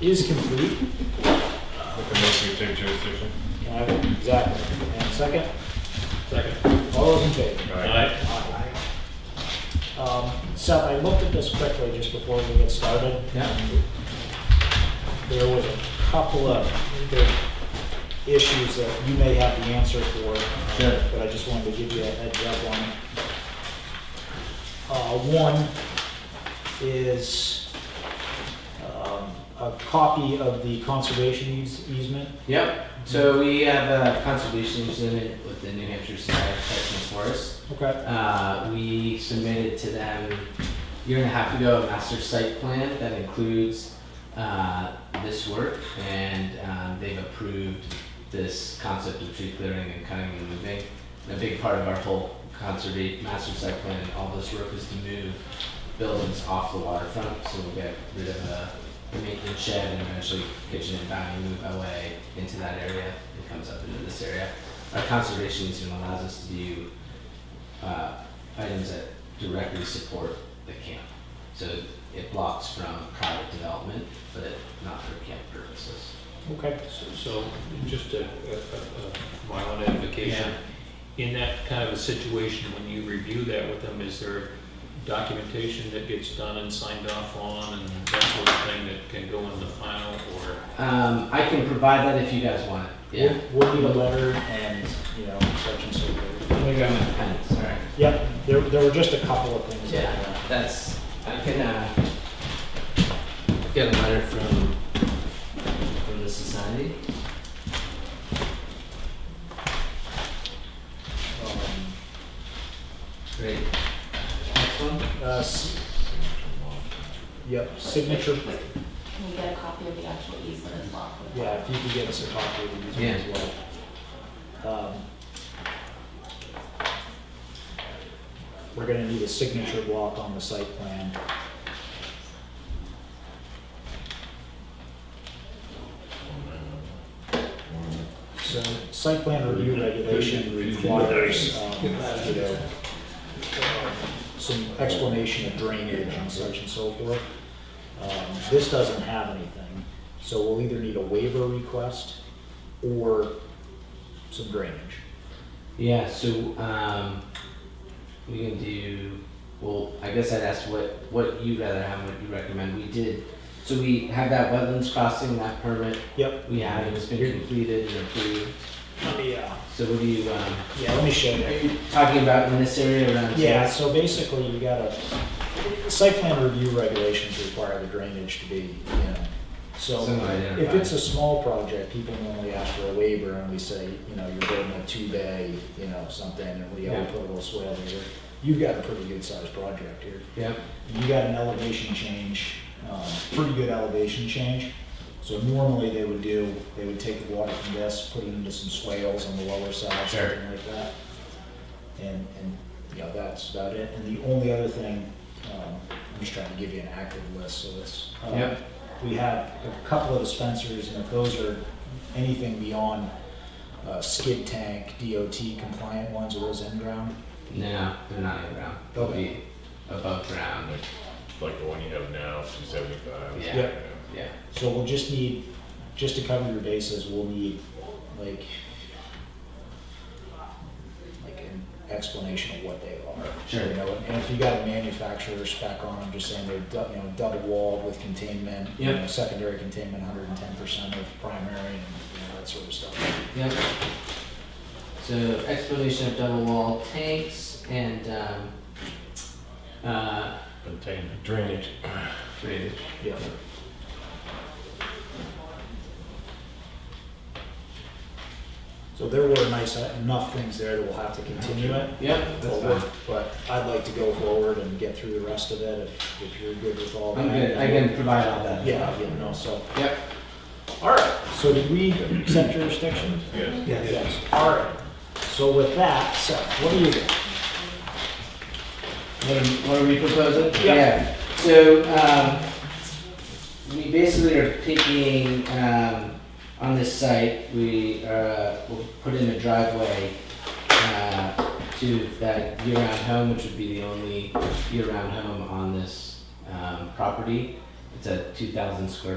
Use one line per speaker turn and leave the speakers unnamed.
is complete.
Make a motion to take jurisdiction.
Can I have- Exactly. And second,
Second.
all those in favor?
Aye.
Um, Seth, I looked at this quickly just before we get started.
Yeah.
There was a couple of big issues that you may have the answer for. uh,
Sure.
But I just wanted to give you a heads up on. it. Uh, one is, um, a copy of the conservation eas- easement.
Yep, so we have a conservation easement with the New Hampshire Society of Protection Forest.
Okay.
Uh, we submitted to them a year and a half ago a master site plan that includes uh, this work and um, they've approved this concept of tree clearing and cutting and moving. And a big part of our whole conservate master site plan and all this work is to move buildings off the waterfront, so we'll get rid of a maintenance shed and eventually kitchen and dining move away into that area. It comes up into this area. Our conservation easement allows us to do uh, items that directly support the camp. So it blocks from private development, but not for camp purposes.
Okay.
So- So, just a, a, a- a minor notification. In that kind of a situation, when you review that with them, is there documentation that gets done and signed off on and that sort of thing that can go in the final or?
Um, I can provide that if you guys want it. Yeah.
We'll we'll need a letter and, you know, such and so forth.
Thanks. All right.
Yep, there, there were just a couple of things. that,
Yeah, that's, I can, uh, get a letter from, from the society.
uh, um,
Great. Next one?
uh, s- Yep, signature,
Can you get a copy of the actual easement as well? for the
yeah, if you could get us a copy of these ones as well. Um, We're gonna need a signature block on the site plan. So, site plan review regulation requires, um, you know, some explanation of drainage and such and so forth. Um, This doesn't have anything, so we'll either need a waiver request or some drainage.
Yeah, so um, we can do. Well, I guess I'd ask what what you rather have, what you recommend. We did. So we have that wetlands crossing, that permit.
Yep.
We have it. It's been completed and approved.
Let me, uh,
So what do you? Um,
yeah, let me show
are
you.
you talking about in this area around? here?
Yeah, so basically you gotta, site plan review regulations require the drainage to be, you know, so.
Somewhat
If
identified.
it's a small project, people normally ask for a waiver and we say, you know, you're building a two-bay, you know, something, and we all
Yeah.
put a little swale here. You've got a pretty good-sized project here.
Yep.
you got an elevation change, um, pretty good elevation change. So normally they would do, they would take the water from this, put it into some swales on the lower side,
Sure.
something like that. And, and, you know, that's about it. And the only other thing, um, I'm just trying to give you an active list, so it's. uh,
Yep.
We have a couple of dispensers, and if those are anything beyond, uh, skid tank, DOT compliant ones, are those in ground?
No, they're not in ground. They'll be above ground. oh,
Like the one you have now, two seventy-five.
Yeah.
Yep.
Yeah.
So we'll just need, just to cover your bases, we'll need like, like an explanation of what they are.
Sure.
You know, and if you got a manufacturer spec on them, just saying they're, dou- you know, double walled with containment, you
Yep.
know, secondary containment, hundred and ten percent of primary and, you know, that sort of stuff.
Yep. So explanation of double wall tanks and um, uh,
Containment. Drainage.
drainage.
Yeah. So there were nice, uh, enough things there that we'll have to continue it.
Yep, that's
Well,
fine.
But I'd like to go forward and get through the rest of it if, if you're good with all that.
I'm good. I can provide all that.
Yeah, you know, so,
Yep.
all right, so did we accept jurisdiction?
Yes.
Yes. All right, so with that, Seth, what do you,
What are, what are we proposing?
Yeah.
So um, we basically are taking um, on this site. We uh, will put in a driveway uh, to that year-round home, which would be the only year-round home on this um, property. It's a 2,000 square